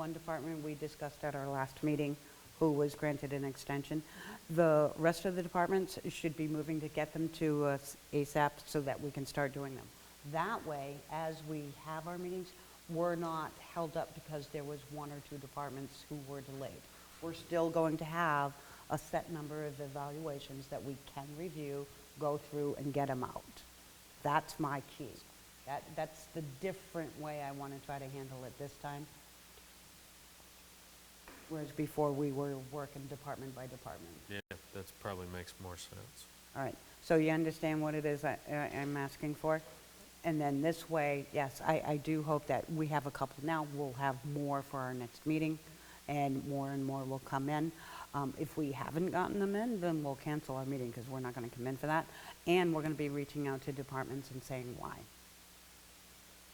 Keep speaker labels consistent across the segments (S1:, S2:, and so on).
S1: One department we discussed at our last meeting, who was granted an extension. The rest of the departments should be moving to get them to us ASAP so that we can start doing them. That way, as we have our meetings, we're not held up because there was one or two departments who were delayed. We're still going to have a set number of evaluations that we can review, go through, and get them out. That's my key. That, that's the different way I want to try to handle it this time. Whereas before, we were working department by department.
S2: Yeah, that's probably makes more sense.
S1: All right, so you understand what it is I- I- I'm asking for? And then this way, yes, I, I do hope that we have a couple now, we'll have more for our next meeting, and more and more will come in. Um, If we haven't gotten them in, then we'll cancel our meeting, because we're not going to come in for that, and we're going to be reaching out to departments and saying why.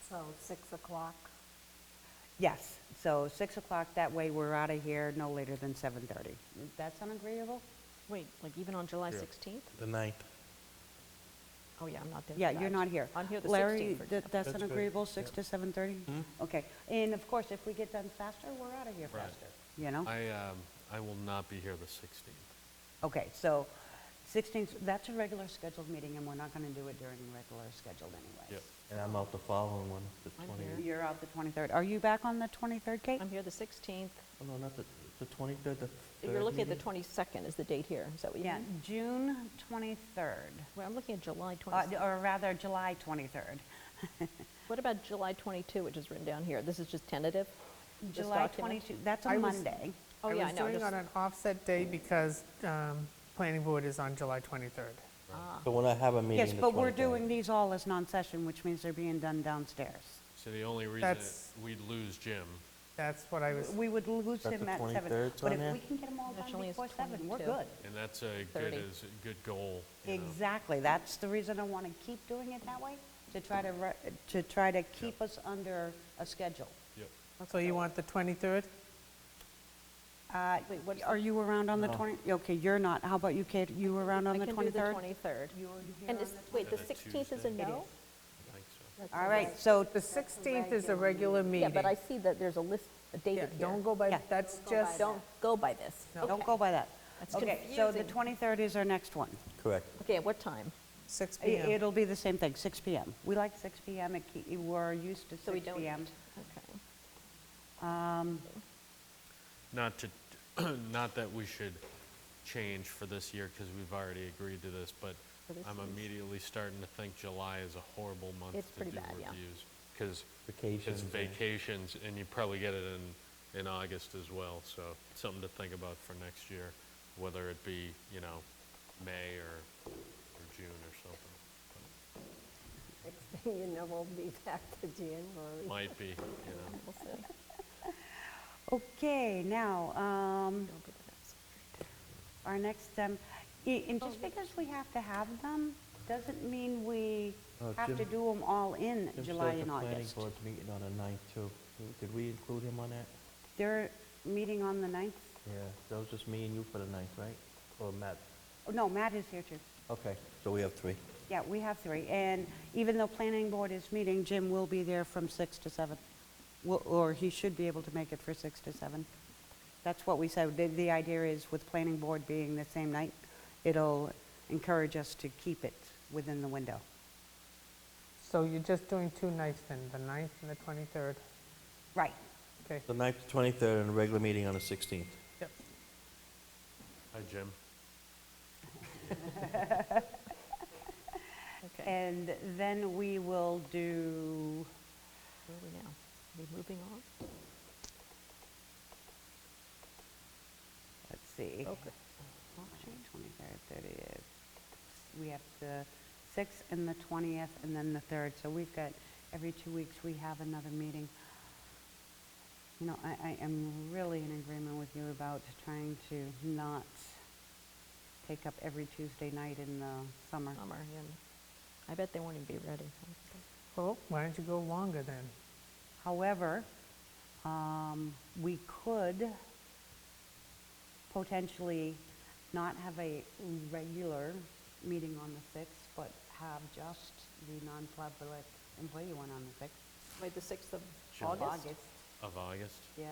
S3: So 6 o'clock,
S1: Yes, so 6 o'clock, that way we're out of here no later than 7:30. Does that sound agreeable?
S4: Wait, like even on July
S2: Yeah.
S4: 16th?
S5: The ninth.
S4: Oh, yeah, I'm not there for
S1: Yeah, you're
S4: that.
S1: not here.
S4: I'm here the 16th,
S1: Larry,
S4: for
S1: that-
S4: example.
S1: that's an
S5: That's good.
S1: agreeable, 6 to 7:30?
S5: Hmm?
S1: Okay, and of course, if we get done faster, we're out of here
S2: Right.
S1: faster, you
S4: Oh.
S1: know?
S2: I, um, I will not be here the 16th.
S1: Okay, so 16th, that's a regular scheduled meeting, and we're not going to do it during regular scheduled anyways.
S5: And I'm out the following one, the
S4: I'm
S5: 20th.
S1: You're out the 23rd. Are you back on the 23rd, Kate?
S4: I'm here the 16th.
S5: Oh, no, not the, the 23rd, the
S4: You're
S5: third
S4: looking at the
S5: meeting?
S4: 22nd is the date here. Is that what you
S1: Yeah,
S4: mean?
S1: June 23rd,
S4: Well, I'm looking at July
S1: Uh,
S4: 22nd.
S1: or rather, July 23rd.
S4: What about July 22, which is written down here? This is just tentative? this
S1: July
S4: document?
S1: 22, that's a
S6: I was-
S1: Monday.
S4: Oh, yeah, I know.
S6: was doing
S4: just-
S6: on an offset day because um, planning board is on July 23rd.
S5: But when I have a meeting,
S1: Yes,
S5: the
S1: but we're
S5: 23rd.
S1: doing these all as non-session, which means they're being done downstairs.
S2: So the only reason
S6: That's-
S2: we'd lose Jim,
S6: That's what I was,
S1: We would lose
S5: That's
S1: him
S5: the
S1: at seven.
S5: 23rd,
S1: But if
S5: Sonia?
S1: we can get them all done
S4: Actually, it's
S1: before seven, we're
S4: 22.
S1: good.
S2: and that's a good,
S4: 30.
S2: is a good goal. you know.
S1: Exactly, that's the reason I want to keep doing it that way, to try to, re- to try to keep us under a schedule.
S2: Yep.
S6: so you want the 23rd?
S1: Uh,
S4: Wait, what's
S1: Are you around on the
S5: No.
S1: 20, okay, you're not, how about you, Kate, you around on the
S4: I can do
S1: 23rd?
S4: the 23rd.
S1: You were here
S4: And
S1: on
S4: is,
S1: the
S4: wait, the
S2: Is that
S4: 16th is
S2: Tuesday?
S4: a
S2: It I
S4: no?
S2: think so.
S4: That's
S1: All
S4: a
S1: right,
S4: yes.
S1: so,
S6: The 16th is a regular
S4: Yeah,
S6: meeting.
S4: but I see that there's a list, a date
S6: Yeah,
S4: here.
S6: Don't go by,
S1: Yeah.
S6: that's just,
S4: Don't go by this.
S1: don't
S4: Okay.
S1: go by that.
S4: That's
S1: Okay, so the
S4: confusing.
S1: 23rd is our next one.
S5: Correct.
S4: Okay, at what time?
S6: 6
S1: I-
S6: PM.
S1: It'll be the same thing, 6 PM. We like 6 PM, It ke- we're used to
S4: So we
S1: 6
S4: don't.
S1: PM.
S4: Okay.
S2: Not to, not that we should change for this year, because we've already agreed to this, but
S4: For this
S2: I'm
S4: year's-
S2: immediately starting to think July is a horrible month
S4: It's
S2: to do
S4: pretty bad, yeah.
S2: reviews. Because it's
S5: Vacations, yeah.
S2: vacations, and you probably get it in, in August as well, so something to think about for next year, whether it be, you know, May or, or June or something.
S7: Next thing you know, we'll be back to January.
S2: Might be, you know.
S4: We'll see.
S1: Okay, now, um,
S4: Don't go by this.
S1: our next, um, i- and just because we have to have them, doesn't mean we
S5: Uh,
S1: have to
S5: Jim-
S1: do them all in
S5: Jim
S1: July
S5: said
S1: and
S5: The planning
S1: August.
S5: board's meeting on the ninth, too. Did we include him on that?
S1: They're meeting on the 9th?
S5: Yeah, that was just me and you for the ninth, right? Or Matt?
S1: Oh, No, Matt is here too.
S5: Okay, so we have three.
S1: Yeah, we have three. And even though planning board is meeting, Jim will be there from 6 to 7. Wo- Or he should be able to make it for 6 to 7. That's what we said. The, the idea is with planning board being the same night, it'll encourage us to keep it within the window.
S6: So you're just doing two nights then, the 9th and the 23rd?
S1: Right.
S6: Okay,
S5: The ninth, the 23rd, and a regular meeting on the 16th.
S6: yep.
S2: Hi, Jim.
S4: Okay,
S1: And then we will do,
S4: where are we now? Are we moving on?
S1: let's see.
S4: Okay.
S1: Actually, 23rd, 30th. We have the 6th and the 20th, and then the 3rd. So we've got, every two weeks, we have another meeting. You know, I, I am really in agreement with you about trying to not take up every Tuesday night in the summer.
S4: Summer, and I bet they won't even be ready.
S6: Well, why don't you go longer then?
S1: However, um, we could potentially not have a regular meeting on the 6th, but have just the non-public employee one on the 6th.
S4: Wait, the 6th of
S2: Sure.
S4: August?
S2: Of August?
S1: Yeah,